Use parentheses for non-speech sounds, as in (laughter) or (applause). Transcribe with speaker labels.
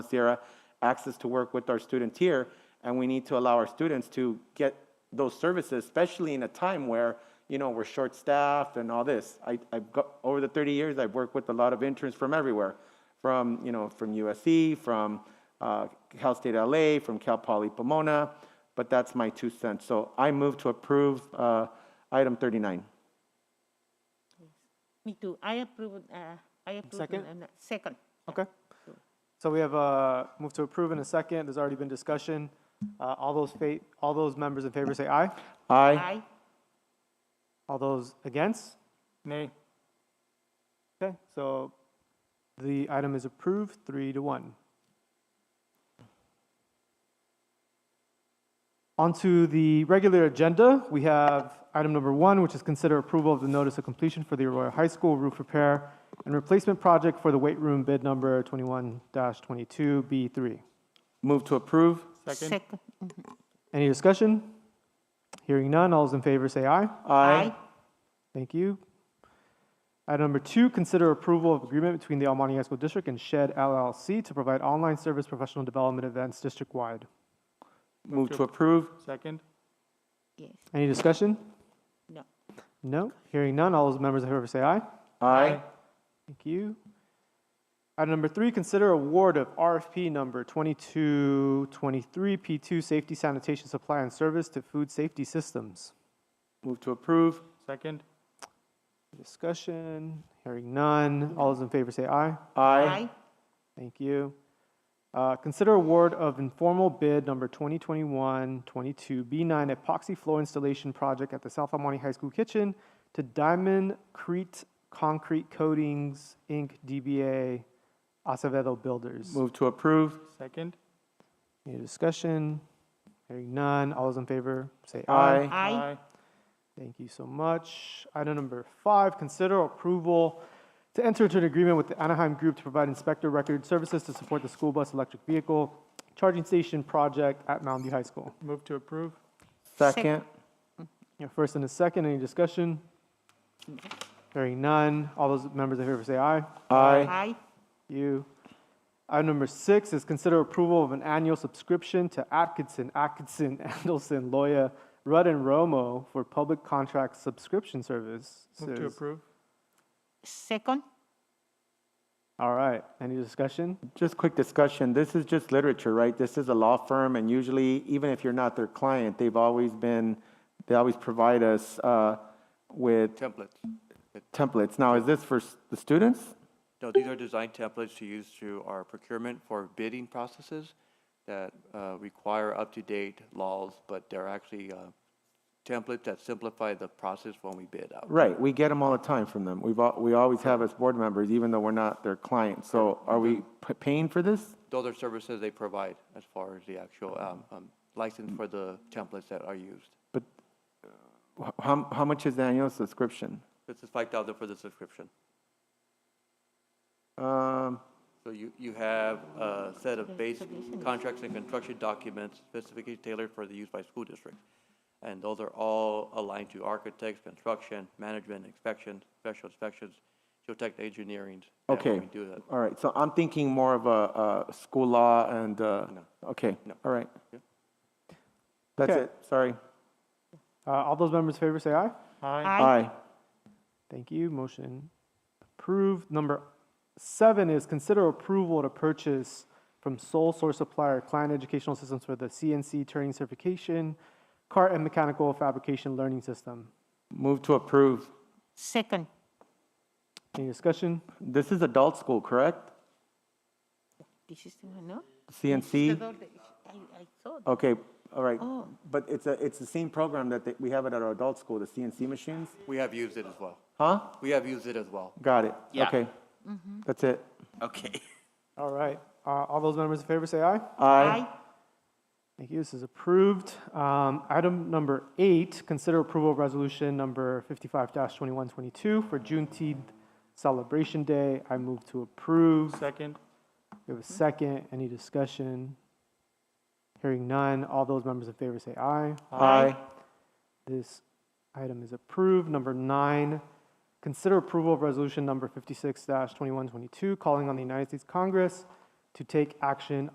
Speaker 1: Sierra access to work with our students here, and we need to allow our students to get those services, especially in a time where you know we're short-staffed and all this. I, I've got over the 30 years, I've worked with a lot of interns from everywhere, from you know from USC, from uh, Cal State LA, from Cal Poly Pomona. But that's my two cents. So I move to approve uh, item 39.
Speaker 2: Me too. I approve, uh, I approve.
Speaker 3: Second?
Speaker 2: and, uh, Second.
Speaker 3: Okay. So we have a move to approve in a second. There's already been discussion. Uh, All those, fa- all those members in favor say aye.
Speaker 1: Aye.
Speaker 2: Aye.
Speaker 3: All those against? Nay. Okay, so the item is approved, three to one. Onto the regular agenda, we have item number one, which is consider approval of the notice of completion for the Arroyo High School roof repair and replacement project for the weight room bid number 21-22B3.
Speaker 1: Move to approve.
Speaker 2: Second.
Speaker 3: Any discussion? Hearing none, all those in favor say aye.
Speaker 2: Aye.
Speaker 3: Thank you. Item number two, consider approval of agreement between the Almonte High School District and Shed LLC to provide online service professional development events district-wide.
Speaker 1: Move to approve.
Speaker 4: Second?
Speaker 2: Yes,
Speaker 3: Any discussion?
Speaker 2: no.
Speaker 3: No. Hearing none, all those members in favor say aye.
Speaker 1: Aye.
Speaker 3: Thank you. Item number three, consider award of RFP number 2223P2 Safety Sanitation Supply and Service to Food Safety Systems.
Speaker 1: Move to approve.
Speaker 4: Second?
Speaker 3: Discussion, hearing none, all those in favor say aye.
Speaker 1: Aye.
Speaker 3: Thank you. Uh, Consider award of informal bid number 2021-22 B9 epoxy floor installation project at the South Almonte High School kitchen to Diamond Crete Concrete Coatings, Inc., DBA Acevedo Builders.
Speaker 1: Move to approve.
Speaker 4: Second?
Speaker 3: Any discussion? Hearing none. All those in favor, say
Speaker 1: Aye.
Speaker 3: aye.
Speaker 2: Aye.
Speaker 3: Thank you so much. Item number five, consider approval to enter into an agreement with the Anaheim Group to provide inspector record services to support the school bus electric vehicle charging station project at Mountain View High School.
Speaker 4: Move to approve?
Speaker 1: Second.
Speaker 3: Your first and a second, any discussion? Hearing none. All those members in favor say aye.
Speaker 1: Aye.
Speaker 2: Aye.
Speaker 3: You. Item number six is consider approval of an annual subscription to Atkinson, Atkinson, (laughs) Andelson, Loya, Rudd, and Romo for public contract subscription service.
Speaker 4: Move to approve?
Speaker 2: Second.
Speaker 3: All right. Any discussion?
Speaker 1: Just quick discussion. This is just literature, right? This is a law firm, and usually, even if you're not their client, they've always been, they always provide us uh, with
Speaker 5: templates.
Speaker 1: templates. Now, is this for s- the students?
Speaker 5: No, these are design templates to use through our procurement for bidding processes that uh, require up-to-date laws, but they're actually uh, templates that simplify the process when we bid out.
Speaker 1: Right. We get them all the time from them. We've al- we always have as board members, even though we're not their client. So, are we p- paying for this?
Speaker 5: Those are services they provide as far as the actual um, um, license for the templates that are used.
Speaker 1: But uh, wh- how, how much is the annual subscription?
Speaker 5: This is five thousand for the subscription.
Speaker 1: Um,
Speaker 5: So you, you have a set of base contracts and construction documents specifically tailored for the use by school districts. And those are all aligned to architects, construction, management, inspection, special inspections, geotech engineering. that when
Speaker 1: Okay.
Speaker 5: we do that.
Speaker 1: All right. So I'm thinking more of a, a school law and, uh, okay.
Speaker 5: No.
Speaker 1: All right.
Speaker 5: Yeah.
Speaker 1: That's
Speaker 3: Okay.
Speaker 1: it. Sorry.
Speaker 3: Uh, all those members in favor say aye.
Speaker 4: Aye.
Speaker 2: Aye.
Speaker 3: Thank you. Motion approved. Number seven is consider approval to purchase from sole source supplier client educational systems for the CNC turning certification, car and mechanical fabrication learning system.
Speaker 1: Move to approve.
Speaker 2: Second.
Speaker 3: Any discussion?
Speaker 1: This is adult school, correct?
Speaker 2: This is the one, no? The
Speaker 1: CNC?
Speaker 2: door that- I, I saw. that.
Speaker 1: Okay. All right.
Speaker 2: Oh.
Speaker 1: But it's a, it's the same program that they- we have it at our adult school, the CNC machines?
Speaker 5: We have used it as well.
Speaker 1: Huh?
Speaker 5: We have used it as well.
Speaker 1: Got it.
Speaker 6: Yeah.
Speaker 1: Okay. That's it.
Speaker 6: Okay.
Speaker 3: All right. Uh, all those members in favor say aye.
Speaker 1: Aye.
Speaker 3: Thank you. This is approved. Um, item number eight, consider approval of resolution number 55-2122 for Juneteenth celebration day. I move to approve.
Speaker 4: Second?
Speaker 3: We have a second. Any discussion? Hearing none. All those members in favor say aye.
Speaker 1: Aye.
Speaker 3: This item is approved. Number nine, consider approval of resolution number 56-2122, calling on the United States Congress to take action